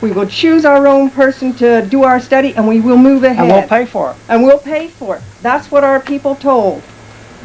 We will choose our own person to do our study, and we will move ahead. And we'll pay for it. And we'll pay for it. That's what our people told.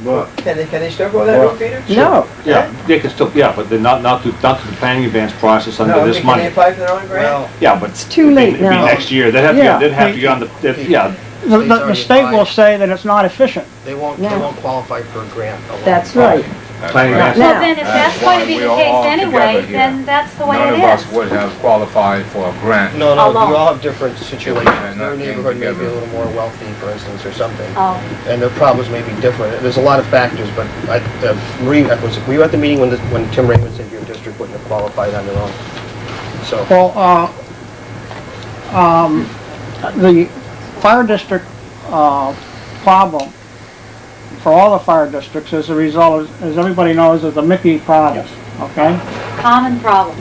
But, Can they, can they still go that Well, road, Peter? No. Yeah, they can still, yeah, but they're not, not through, not through the planning advance process No, under this can they money. apply for their own grant? well, Yeah, but. It's too it'd be- late it'd be now. next year, they'd have Yeah. to, they'd have to get on the, they'd- yeah, The, the, State's the already state will applied. say that it's not efficient. They won't, they No. won't qualify for a grant alone. That's right. That's planning right. advance. Well, then, if That's that's going why to be we the are case all anyway, together here. then that's the way None it of us is. would have qualified for a grant. No, no, Alone. you all have different situations. not Your came neighborhood may be a together. little more wealthy, for instance, or something, Oh, and their problems may be different. There's a lot of factors, but I, uh, Marie, uh, was, were you at the meeting when, the- when Tim Raymond said your district wouldn't have qualified on their own? So, Well, uh, um, the fire district, uh, problem for all the fire districts is the result, is- as everybody knows, is the Mickey problem, okay? common problem.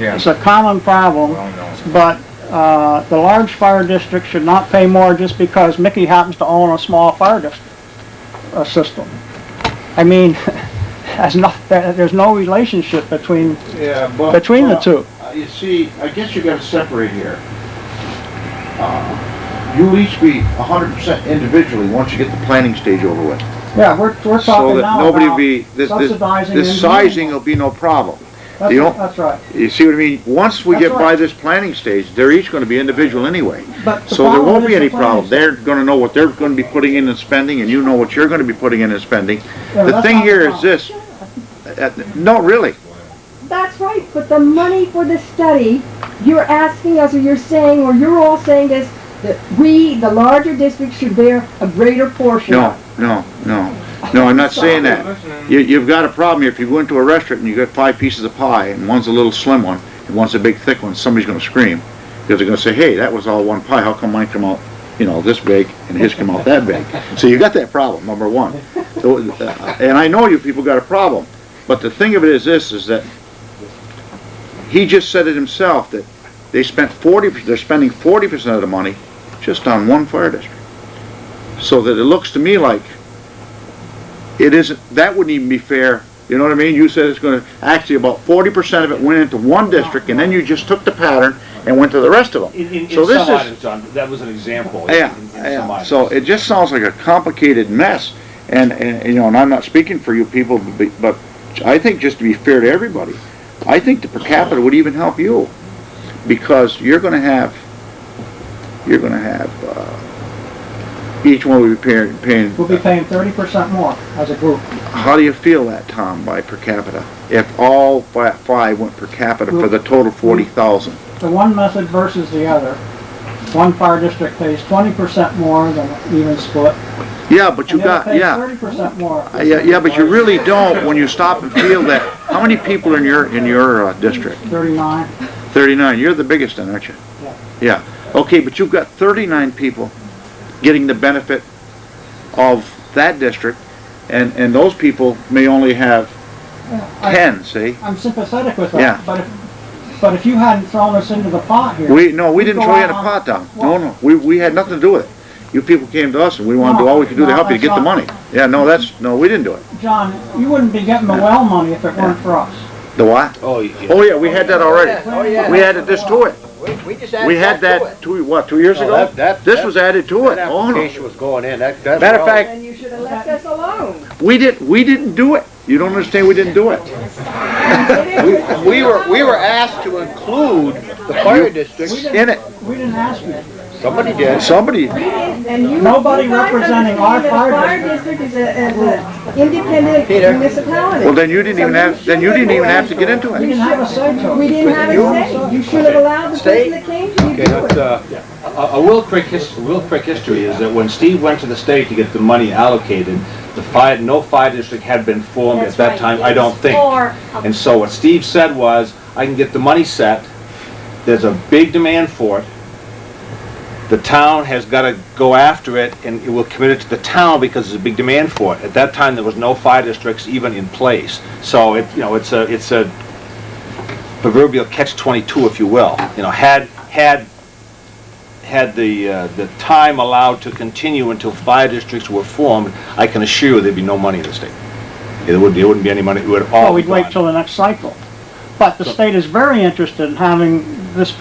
Yeah, It's a common problem. well known. But uh, the large fire district should not pay more just because Mickey happens to own a small fire district, uh system. I mean, that's not, there- there's no relationship between, yeah, but. between the two. Uh, You see, I guess you gotta separate here. Uh, You'll each be hundred percent individually once you get the planning stage over with. Yeah, we're, we're So talking that now nobody about be, this, this, subsidizing this engineering. sizing will be no problem. That's, the o- that's right. You see what I mean? Once we get That's right. by this planning stage, they're each gonna be individual anyway. But the So there problem won't be is the any planning problem. They're gonna know what they're gonna be putting in and spending, and you know what you're gonna be putting in and spending. Yeah, The that's thing not the here is problem. this, uh, uh, no, really, That's right, but the money for the study, you're asking us, or you're saying, or you're all saying this, that we, the larger districts, should bear a greater portion. no, no, no. No, I'm not saying that. You, you've got a problem here. If you go into a restaurant and you got five pieces of pie, and one's a little slim one, and one's a big thick one, somebody's gonna scream. Because they're gonna say, hey, that was all one pie, how come mine come out, you know, this big, and his come out that big? So you got that problem, number one. So, uh, and I know you people got a problem, but the thing of it is this, is that he just said it himself, that they spent forty, they're spending forty percent of the money just on one fire district. So that it looks to me like it isn't, that wouldn't even be fair, you know what I mean? You said it's gonna, actually about forty percent of it went into one district, and then you just took the pattern and went to the rest of them. In, in, in So some this is- items, John, that was an example. in- Yeah, in- in some yeah, items. so it just sounds like a complicated mess, and, and, you know, and I'm not speaking for you people, but- but I think just to be fair to everybody, I think the per capita would even help you, because you're gonna have, you're gonna have, uh, each one will be paying, paying, We'll be paying thirty percent more as a group. how do you feel that, Tom, by per capita? If all fi- five went per capita for the total forty thousand? The one method versus the other. One fire district pays twenty percent more than an even split. Yeah, but and you the other got, pays yeah. Thirty percent more. Uh, Yeah, yeah, but you really don't when you stop and feel that. How many people in your, in your uh, district? Thirty-nine. Thirty-nine, you're the biggest then, aren't you? Yeah. Yeah, okay, but you've got thirty-nine people getting the benefit of that district, and, and those people may only have I- ten, see? I'm sympathetic with Yeah. that, but if, but if you hadn't thrown us into the pot here. We, no, we didn't go throw you in a out pot down. No, no, we, we had nothing to do with it. You people came to us and we wanted to do all we could do to No, help you to that's get the not- money. Yeah, no, that's, no, we didn't do it. on- John, you wouldn't be getting the well money if it weren't for us. The what? Oh, yeah. Oh, yeah, we had that already. Oh, yeah. We added this to it. We, we just added We had that to it. that two, what, two years No, ago? Oh, that- that- This that- was added to it. That Oh, no. application was going in, that, that's. Matter of wrong. fact, And you should have left us alone. we didn't, we didn't do it. You don't understand, we didn't do it. We were, we were asked to include the fire districts. In it, We didn't ask you. Somebody did. somebody, And you, Nobody you guys representing our understand that fire fire district is an independent Peter. municipality. well, then you didn't even have, then you didn't even have to get into We it. didn't have a say to it. We didn't have a say. You should have allowed the person Stay. that came to you Okay, to do that's, it. uh, A, a real quick his, real quick history is that when Steve went to the state to get the money allocated, the fire, no fire district had been formed at That's that right. time, I don't It's think. for a And so what Steve said was, I can get the money set, there's a big demand for it. The town has gotta go after it and it will commit it to the town because there's a big demand for it. At that time, there was no fire districts even in place. So it, you know, it's a, it's a proverbial catch twenty-two, if you will. You know, had, had, had the, uh, the time allowed to continue until fire districts were formed, I can assure you there'd be no money in the state. There wouldn't, there wouldn't be any Oh, money, it would all Well, be we'd wait gone. till the next cycle. But the state is very interested in having this